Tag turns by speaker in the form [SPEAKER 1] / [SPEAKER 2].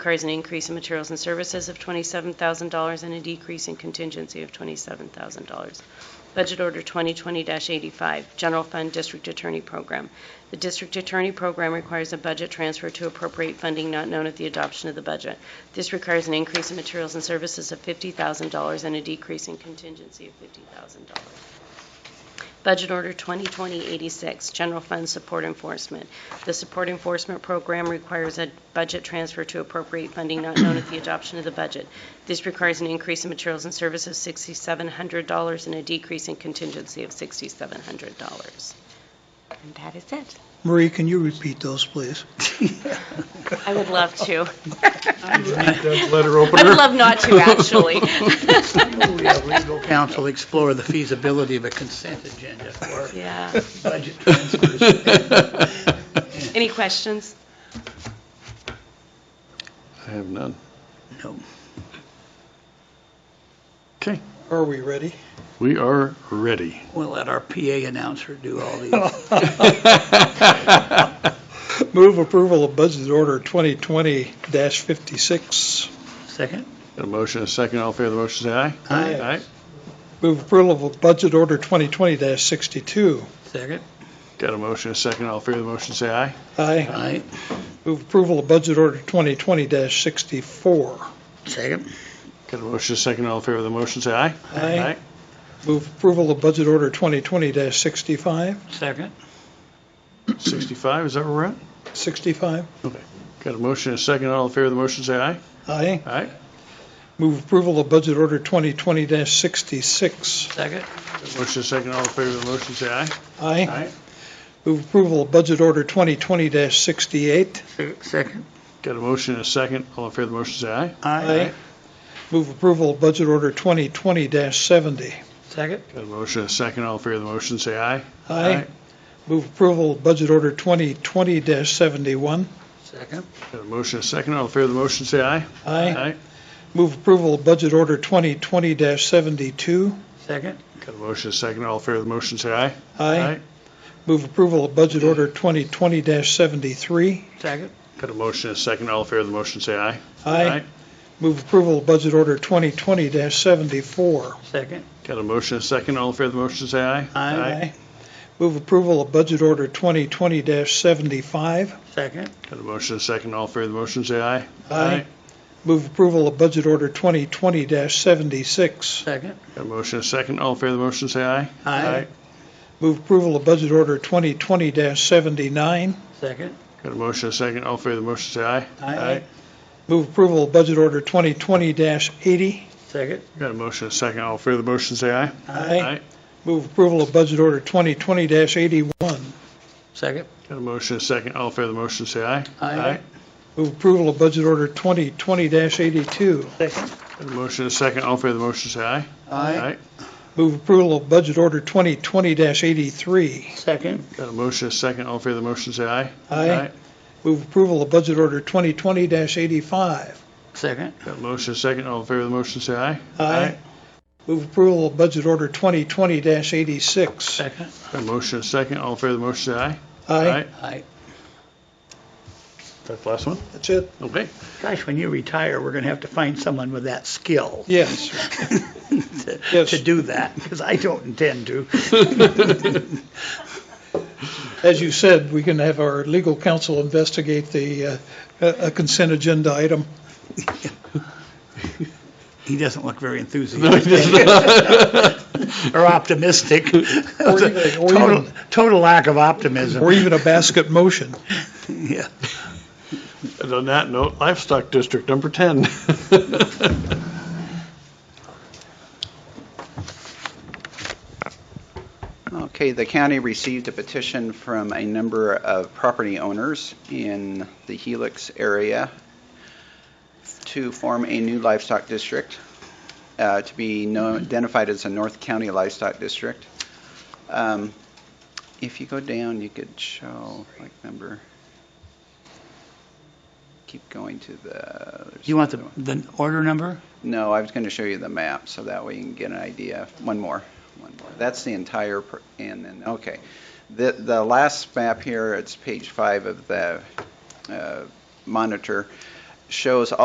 [SPEAKER 1] requires an increase in materials and services of $27,000 and a decrease in contingency of $27,000. Budget Order 2020-85, General Fund District Attorney Program. The District Attorney Program requires a budget transfer to appropriate funding not known at the adoption of the budget. This requires an increase in materials and services of $50,000 and a decrease in contingency of $50,000. Budget Order 2020-86, General Fund Support Enforcement. The Support Enforcement Program requires a budget transfer to appropriate funding not known at the adoption of the budget. This requires an increase in materials and services of $6,700 and a decrease in contingency of $6,700. And that is it.
[SPEAKER 2] Marie, can you repeat those, please?
[SPEAKER 1] I would love to.
[SPEAKER 3] Letter
[SPEAKER 1] I would
[SPEAKER 3] opener.
[SPEAKER 1] love not to, actually.
[SPEAKER 2] We have legal counsel explore the feasibility of a consent agenda for
[SPEAKER 1] Yeah.
[SPEAKER 2] budget transfers.
[SPEAKER 1] Any questions?
[SPEAKER 3] I have none.
[SPEAKER 2] No.
[SPEAKER 3] Okay,
[SPEAKER 4] Are we ready?
[SPEAKER 3] we are ready.
[SPEAKER 2] We'll let our PA announcer do all
[SPEAKER 4] Oh.
[SPEAKER 2] these.
[SPEAKER 4] Move approval of budget order 2020-56.
[SPEAKER 2] Second?
[SPEAKER 3] Got a motion, a second, all in favor of the motion, say aye.
[SPEAKER 2] Aye.
[SPEAKER 3] Aye.
[SPEAKER 4] Move approval of budget order 2020-62.
[SPEAKER 2] Second?
[SPEAKER 3] Got a motion, a second, all in favor of the motion, say aye.
[SPEAKER 4] Aye.
[SPEAKER 2] Aye.
[SPEAKER 4] Move approval of budget order 2020-64.
[SPEAKER 2] Second?
[SPEAKER 3] Got a motion, a second, all in favor of the motion, say aye.
[SPEAKER 4] Aye. Move approval of budget order 2020-65.
[SPEAKER 2] Second?
[SPEAKER 3] 65, is that where we're at?
[SPEAKER 4] 65.
[SPEAKER 3] Got a motion, a second, all in favor of the motion, say aye.
[SPEAKER 4] Aye.
[SPEAKER 3] Aye.
[SPEAKER 4] Move approval of budget order 2020-66.
[SPEAKER 2] Second?
[SPEAKER 3] Got a motion, a second, all in favor of the motion, say aye.
[SPEAKER 4] Aye. Move approval of budget order 2020-68.
[SPEAKER 2] Second?
[SPEAKER 3] Got a motion, a second, all in favor of the motion, say aye.
[SPEAKER 2] Aye.
[SPEAKER 4] Move approval of budget order 2020-70.
[SPEAKER 2] Second?
[SPEAKER 3] Got a motion, a second, all in favor of the motion, say aye.
[SPEAKER 4] Aye. Move approval of budget order 2020-71.
[SPEAKER 2] Second?
[SPEAKER 3] Got a motion, a second, all in favor of the motion, say aye.
[SPEAKER 4] Aye. Move approval of budget order 2020-72.
[SPEAKER 2] Second?
[SPEAKER 3] Got a motion, a second, all in favor of the motion, say aye.
[SPEAKER 4] Move approval of budget order 2020-73.
[SPEAKER 2] Second?
[SPEAKER 3] Got a motion, a second, all in favor of the motion, say aye.
[SPEAKER 4] Move approval of budget order 2020-74.
[SPEAKER 2] Second?
[SPEAKER 3] Got a motion, a second, all in favor of the motion, say aye.
[SPEAKER 4] Move approval of budget order 2020-75.
[SPEAKER 2] Second?
[SPEAKER 3] Got a motion, a second, all in favor of the motion, say aye.
[SPEAKER 4] Move approval of budget order 2020-76.
[SPEAKER 2] Second?
[SPEAKER 3] Got a motion, a second, all in favor of the motion, say aye.
[SPEAKER 4] Move approval of budget order 2020-79.
[SPEAKER 2] Second?
[SPEAKER 3] Got a motion, a second, all in favor of the motion, say aye.
[SPEAKER 4] Move approval of budget order 2020-80.
[SPEAKER 2] Second?
[SPEAKER 3] Got a motion, a second, all in favor of the motion, say aye.
[SPEAKER 4] Move approval of budget order 2020-81.
[SPEAKER 2] Second?
[SPEAKER 3] Got a motion, a second, all in favor of the motion, say aye.
[SPEAKER 4] Move approval of budget order 2020-82.
[SPEAKER 2] Second?
[SPEAKER 3] Got a motion, a second, all in favor of the motion, say aye.
[SPEAKER 4] Move approval of budget order 2020-83.
[SPEAKER 2] Second?
[SPEAKER 3] Got a motion, a second, all in favor of the motion, say aye.
[SPEAKER 4] Move approval of budget order 2020-85.
[SPEAKER 2] Second?
[SPEAKER 3] Got a motion, a second, all in favor of the motion, say aye.
[SPEAKER 4] Move approval of budget order 2020-86.
[SPEAKER 2] Second?
[SPEAKER 3] Got a motion, a second, all in favor of the motion, say aye.
[SPEAKER 2] Aye.
[SPEAKER 3] That's the last one?
[SPEAKER 4] That's it?
[SPEAKER 3] Okay.
[SPEAKER 2] Gosh, when you retire, we're going to have to find someone with that skill.
[SPEAKER 4] Yes.
[SPEAKER 2] to,
[SPEAKER 4] Yes.
[SPEAKER 2] to do that because I don't intend to.
[SPEAKER 4] As you said, we can have our legal counsel investigate the uh, a a consent agenda item.
[SPEAKER 2] He doesn't look very enthusiastic or optimistic.
[SPEAKER 4] Or even- or
[SPEAKER 2] total,
[SPEAKER 4] even-
[SPEAKER 2] total lack of optimism.
[SPEAKER 4] Or even a basket motion.
[SPEAKER 2] yeah.
[SPEAKER 3] And on that note, Livestock District, number 10.
[SPEAKER 5] Okay, the county received a petition from a number of property owners in the Helix area to form a new livestock district, uh, to be known- identified as a North County Livestock District. Um, If you go down, you could show like number, keep going to the. there's
[SPEAKER 2] You want the,
[SPEAKER 5] another one.
[SPEAKER 2] the order number?
[SPEAKER 5] No, I was going to show you the map, so that way you can get an idea. One more, one more. That's the entire, per- and then, okay. The, the last map here, it's page five of the uh, monitor, shows